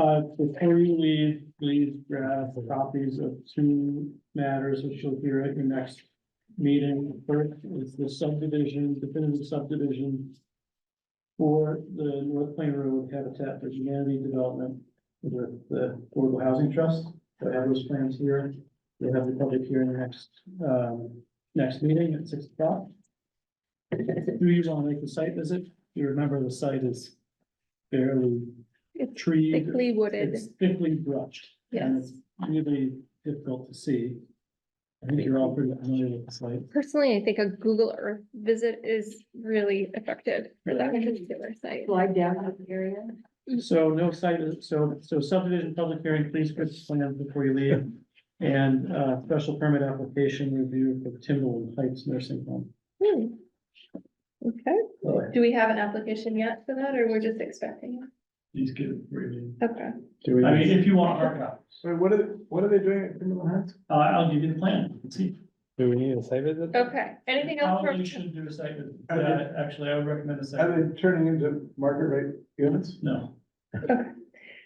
Uh, before you leave, please grab copies of two matters which you'll hear at your next meeting. First is the subdivision, definitive subdivision for the North Plain Road Habitat for Humanity Development with the Affordable Housing Trust. So I have those plans here. We'll have the public hearing next, um, next meeting at six o'clock. Do you want to make the site visit? You remember the site is fairly It's treed. Thickly wooded, It's thickly brushed. and yes. it's Really difficult to see. I think you're all pretty familiar with the site. Personally, I think a Google Earth visit is really effective for that Really? particular site. slide down to the area. Mm-hmm. So no site, so, so subdivision public hearing, please put the plans before you leave. And, uh, special permit application review for Timberland Heights Nursing Home. Hmm. Okay, do we have an application yet for that, or we're just expecting? it? Please give it reading. Okay, Do we, I wait, mean, if you want hard copies, what are, they- what are they doing at Timberland Heights? uh, I'll give you the plan. Let's see. Do we need a site visit? okay, anything else Probably from, should do a site visit. I did. Uh, actually, I would recommend a site. Are they turning into market rate units? No,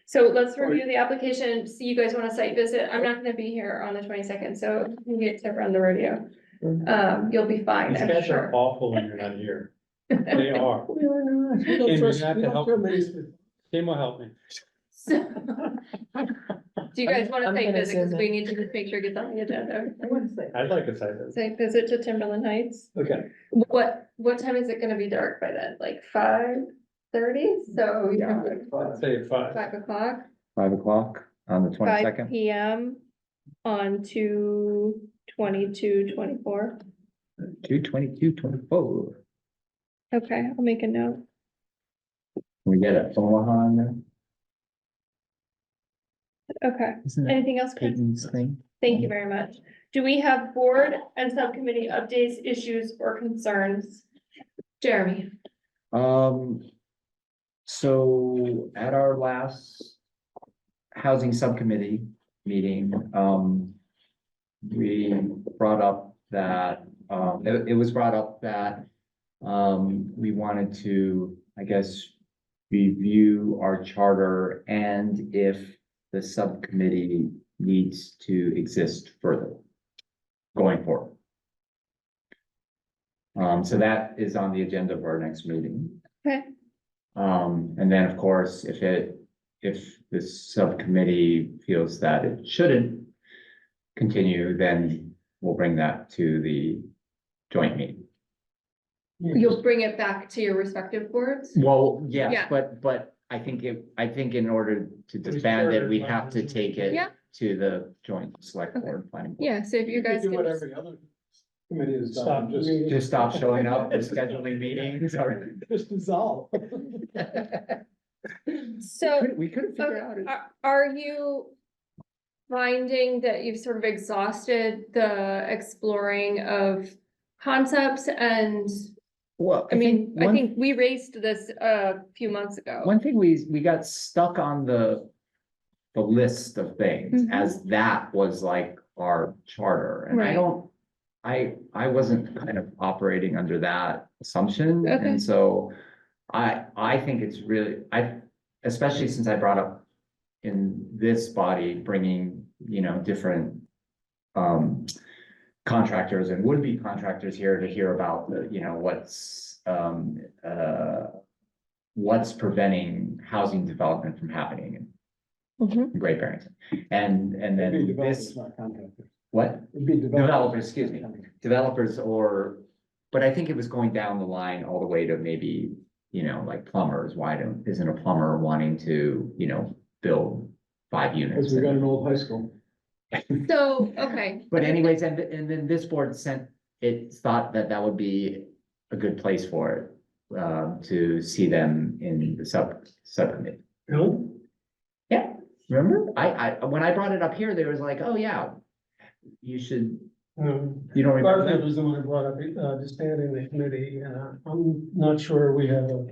so let's review the application, see you guys want a site visit, I'm not gonna be here on the twenty-second, so if you get to run the rodeo. Mm-hmm. Um, you'll be fine, These I'm guys are sure. awful when you're not here. They are. Kim, you have to help Kim will help me. So- Do you guys want a I'm site gonna visit, because zoom we need to just make sure it gets on the agenda. I wouldn't say. I'd like a site visit. Site visit to Timberland Heights. Okay. What, what time is it gonna be dark by then? Like five thirty? So you know, I'd say five. five o'clock, Five o'clock on the five twenty-second, P M on two twenty-two, twenty-four. two twenty-two, twenty-four. Okay, I'll make a note. We get a Omaha on there, Okay, isn't that anything else? Chris? Peyton's thing? Thank you very much. Do we have board and subcommittee updates, issues or concerns? Jeremy? Um, so at our last housing subcommittee meeting, um, we brought up that, um, it, it was brought up that, um, we wanted to, I guess, review our charter and if the subcommittee needs to exist further going forward. Um, so that is on the agenda of our next meeting. Okay. Um, and then, of course, if it, if the subcommittee feels that it shouldn't continue, then we'll bring that to the joint meeting. You'll bring it back to your respective boards? Well, Yeah. yes, but, but I think it, I think in order to It's disband it, chartered we by have the to joint- take it Yeah. to the joint select Okay. board planning. board. Yeah, so if you could guys. Do can what just- every other committee has Stop done, just, meeting. Just stop showing up and scheduling meetings or. just dissolve. So We couldn't figure out. it. are, are you finding that you've sort of exhausted the exploring of concepts and, Well, I mean, I one- think we raised this a few months ago. One thing we, we got stuck on the, the list of things Mhm. as that was like our charter. And Right. I don't, I, I wasn't kind of operating under that assumption. Okay. And so I, I think it's really, I, especially since I brought up in this body, bringing, you know, different um, contractors and would-be contractors here to hear about, the, you know, what's, um, uh, what's preventing housing development from happening Mhm. in Great Barrington? And, and It'd be then developers, this, not contractors. what? It'd be Developers, excuse me, developers or, but I think it was going down the line all the way to maybe, you know, like plumbers, why don't, isn't a plumber wanting to, you know, build five units? As we got an old high school. So, okay, But anyways, and, and then this board sent, it thought that that would be a good place for it. Um, to see them in the sub, subcommittee. Really? Yeah, remember? I, I, when I brought it up here, they was like, oh yeah. You should, you don't remember? Bartlett was the one who brought up, uh, disbanding the committee, and uh, I'm not sure we have a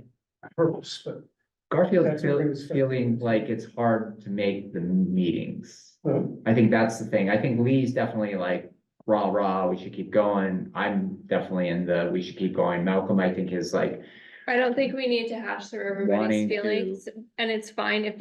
purpose, but. Garfield's That's what feel- brings Phil. feeling like it's hard to make the meetings. uh, I think that's the thing. I think Lee's definitely like rah rah, we should keep going. I'm definitely in the, we should keep going. Malcolm, I think is like, I don't think we need to hash through everybody's Wanting to- feelings, and it's fine if